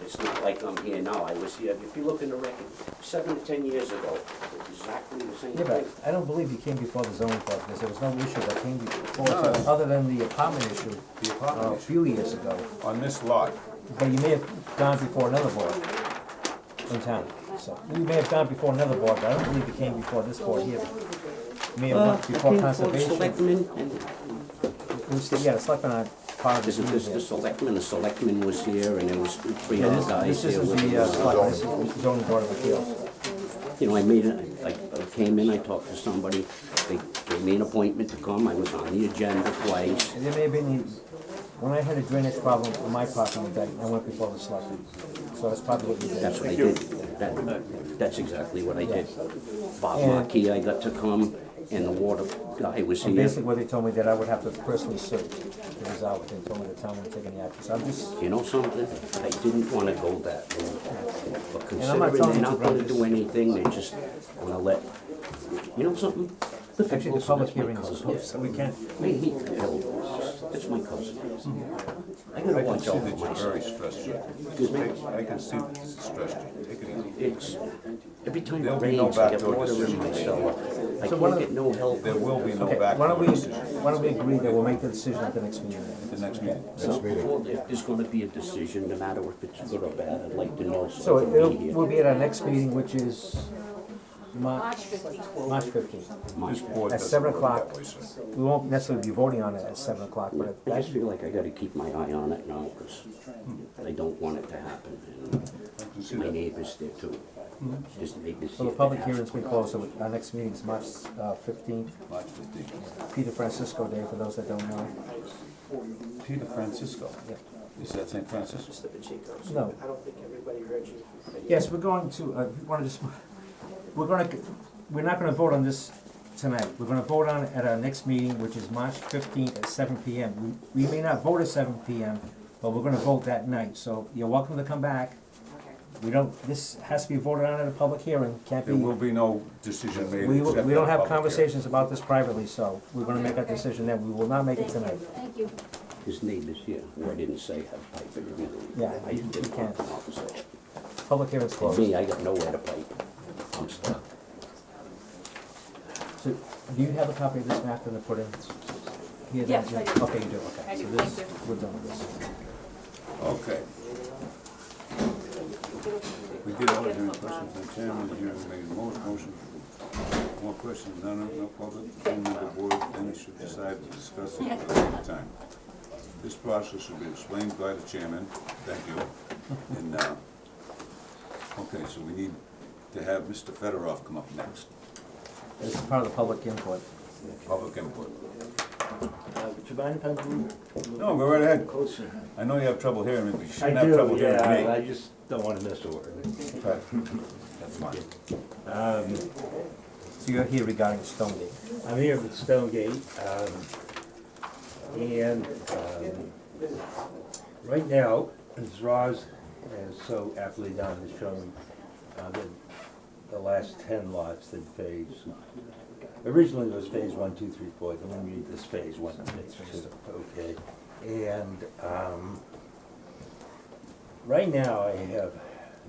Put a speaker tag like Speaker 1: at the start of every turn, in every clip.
Speaker 1: It's not like I'm here now, I was here, if you look in the record, seven to ten years ago, exactly the same
Speaker 2: Yeah,
Speaker 1: thing.
Speaker 2: but I don't believe you came before the zoning board, because there was no issue that came before,
Speaker 3: No, no.
Speaker 2: other than the apartment issue uh,
Speaker 3: The
Speaker 2: a
Speaker 3: apartment
Speaker 2: few years ago.
Speaker 3: on this lot,
Speaker 2: But you may have gone before another board in town, so, you may have gone before another board, but I don't believe you came before this board here. You may have
Speaker 1: Uh,
Speaker 2: went before
Speaker 1: I
Speaker 2: conservation.
Speaker 1: came for selectmen, and
Speaker 2: It was the- Yeah, the selectmen are part of
Speaker 1: this
Speaker 2: this
Speaker 1: is, this,
Speaker 2: meeting
Speaker 1: the
Speaker 2: here.
Speaker 1: selectmen, the selectmen was here, and there was three
Speaker 2: Yeah,
Speaker 1: other
Speaker 2: this,
Speaker 1: guys
Speaker 2: this
Speaker 1: here
Speaker 2: isn't
Speaker 1: with
Speaker 2: the, uh,
Speaker 1: us.
Speaker 2: selectmen, this is the zoning board of appeals.
Speaker 1: You know, I made, a- I I came in, I talked to somebody, they, they made an appointment to come, I was on the agenda twice.
Speaker 2: And there may have been, when I had a drainage problem on my property, that I went before the selectmen, so that's probably what you did.
Speaker 1: That's what I did, that, that's exactly what I did. Bob
Speaker 2: And-
Speaker 1: Markey, I got to come, and the water guy was
Speaker 2: And
Speaker 1: here.
Speaker 2: basically what they told me that I would have to personally sue the result, they told me the town would take any action, so I'm just,
Speaker 1: You know something? I didn't wanna go that route. But
Speaker 2: I'm not
Speaker 1: considering
Speaker 2: telling
Speaker 1: they're
Speaker 2: you
Speaker 1: not
Speaker 2: to
Speaker 1: gonna
Speaker 2: run
Speaker 1: do
Speaker 2: this.
Speaker 1: anything, they just wanna let, you know something? The
Speaker 2: actually the
Speaker 1: Phillips,
Speaker 2: public
Speaker 1: that's my
Speaker 2: hearing is
Speaker 1: cousin.
Speaker 2: closed, so we can't.
Speaker 1: I hate the Phillips. That's my cousin. I gotta
Speaker 3: I can
Speaker 1: watch
Speaker 3: see
Speaker 1: out for
Speaker 3: that you're
Speaker 1: myself.
Speaker 3: very stressed. out.
Speaker 1: Excuse me?
Speaker 3: Take- I can see that this is stressed. out. Take it easy.
Speaker 1: It's, every time it
Speaker 3: There'll be no
Speaker 1: rains, I get
Speaker 3: backdoor
Speaker 1: water in
Speaker 3: decision.
Speaker 1: my cellar. I
Speaker 2: So one
Speaker 1: can't
Speaker 2: of-
Speaker 1: get no help.
Speaker 3: There will be
Speaker 2: Okay,
Speaker 3: no
Speaker 2: why don't
Speaker 3: backdoor
Speaker 2: we,
Speaker 3: decision
Speaker 2: why don't we agree that we'll make the decision at the next meeting?
Speaker 3: at the next meeting.
Speaker 1: So, well, if there's gonna be a decision, no matter if it's good or bad, I'd like to know so
Speaker 2: So
Speaker 1: I
Speaker 2: it-
Speaker 1: can
Speaker 2: it'll,
Speaker 1: be here.
Speaker 2: we'll be at our next meeting, which is March, March fifteenth.
Speaker 3: This board
Speaker 2: At
Speaker 3: doesn't
Speaker 2: seven
Speaker 3: work
Speaker 2: o'clock.
Speaker 3: that way, sir.
Speaker 2: We won't necessarily be voting on it at seven o'clock, but
Speaker 1: I
Speaker 2: I
Speaker 1: just feel like I gotta keep my eye on it now, because I don't want it to happen,
Speaker 3: I can see
Speaker 1: and my
Speaker 3: that.
Speaker 1: neighbor's there too. His neighbor's
Speaker 2: Mm-hmm. So the
Speaker 1: here to
Speaker 2: public
Speaker 1: ask.
Speaker 2: hearing's been closed, so our next meeting is March uh, fifteenth,
Speaker 3: March fifteenth.
Speaker 2: Peter Francisco Day, for those that don't know.
Speaker 3: Peter Francisco. Is that St. Francis?
Speaker 2: No.
Speaker 4: I don't think everybody heard you.
Speaker 2: Yes, we're going to, uh, we wanna just, we're gonna, we're not gonna vote on this tonight. We're gonna vote on it at our next meeting, which is March fifteenth at seven P M. We, we may not vote at seven P M, but we're gonna vote that night, so you're welcome to come back. We don't, this has to be voted on at a public hearing, can't be,
Speaker 3: There will
Speaker 2: we,
Speaker 3: be no decision made.
Speaker 2: we
Speaker 3: except
Speaker 2: don't
Speaker 3: at a
Speaker 2: have
Speaker 3: public hearing.
Speaker 2: conversations about this privately, so we're gonna make our
Speaker 5: Okay.
Speaker 2: decision then. We will not make it tonight.
Speaker 5: Thank you.
Speaker 1: His neighbor's here, who I didn't say have pipe, but really.
Speaker 2: Yeah,
Speaker 1: I
Speaker 2: you-
Speaker 1: didn't
Speaker 2: you
Speaker 1: want
Speaker 2: can't.
Speaker 1: to come out and say it.
Speaker 2: Public hearing's
Speaker 1: And
Speaker 2: closed.
Speaker 1: me, I got nowhere to pipe. I'm stuck.
Speaker 2: So, do you have a copy of this map that I put in? Here,
Speaker 5: Yes,
Speaker 2: Jim?
Speaker 5: I do.
Speaker 2: Okay, you do, okay.
Speaker 5: I do,
Speaker 2: So this-
Speaker 5: thank you.
Speaker 2: We're done with this.
Speaker 3: Okay. We did all the hearing questions, the chairman, the hearing, made a mo- motion. More questions, none, no public, only the board, then it should decide to discuss it at a later time. This process should be explained by the chairman, thank you, and, uh, okay, so we need to have Mr. Fedorov come up next,
Speaker 2: This is part of the public input.
Speaker 3: public input.
Speaker 6: Uh, Would you mind if I move
Speaker 3: No, go right ahead,
Speaker 6: closer?
Speaker 3: I know you have trouble hearing me, but you
Speaker 6: I
Speaker 3: shouldn't have trouble
Speaker 6: do,
Speaker 3: hearing me.
Speaker 6: yeah, I just don't want to miss a word.
Speaker 3: Okay. That's fine.
Speaker 2: So you're here regarding Stonegate.
Speaker 6: I'm here with Stonegate, um, and, um, right now, as Roz has so aptly done, is showing, uh, the, the last ten lots that phase. Originally it was phase one, two, three, four, then we made this phase one, and phase two, okay? And, um, right now I have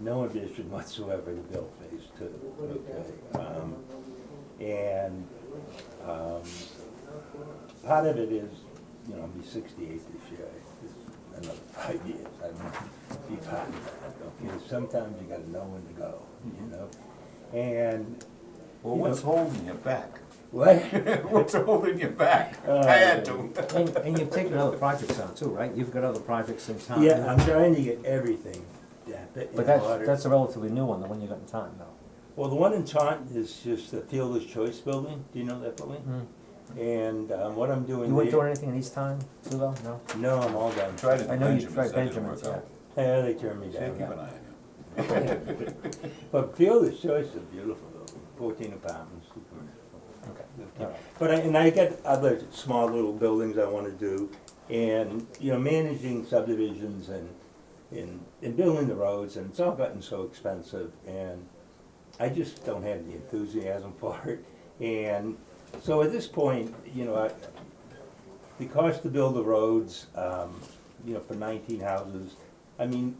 Speaker 6: no ambition whatsoever to build phase two, okay? Um, and um, part of it is, you know, I'll be sixty-eight this year, it's another five years, I mean, be part of that, okay? Sometimes you gotta know when to go, you know? And,
Speaker 3: Well, what's holding you back?
Speaker 6: what?
Speaker 3: What's holding you back? I had to.
Speaker 2: And, and you've taken other projects on too, right? You've got other projects in town.
Speaker 6: Yeah, I'm trying to get everything down in
Speaker 2: But that's,
Speaker 6: order.
Speaker 2: that's a relatively new one, the one you got in town though.
Speaker 6: Well, the one in Taunton is just the Fielder's Choice Building, do you know that building? And um, what I'm doing
Speaker 2: Hmm. You weren't doing
Speaker 6: there,
Speaker 2: anything in East Time too though, no?
Speaker 6: no, I'm all done.
Speaker 3: Try to
Speaker 2: I know you
Speaker 3: Benjamin's,
Speaker 2: tried
Speaker 3: that didn't
Speaker 2: Benjamin's,
Speaker 3: work
Speaker 2: yeah.
Speaker 3: out.
Speaker 6: Yeah, they turned me
Speaker 3: Yeah,
Speaker 6: down.
Speaker 3: keep an eye on you.
Speaker 6: But Fielder's Choice is beautiful, though. fourteen apartments.
Speaker 2: Okay.
Speaker 6: Yeah. But I, and I got other small little buildings I wanna do, and, you know, managing subdivisions and, and, and building the roads, and it's all gotten so expensive, and I just don't have the enthusiasm for it, and so at this point, you know, I, the cost to build the roads, um, you know, for nineteen houses, I mean,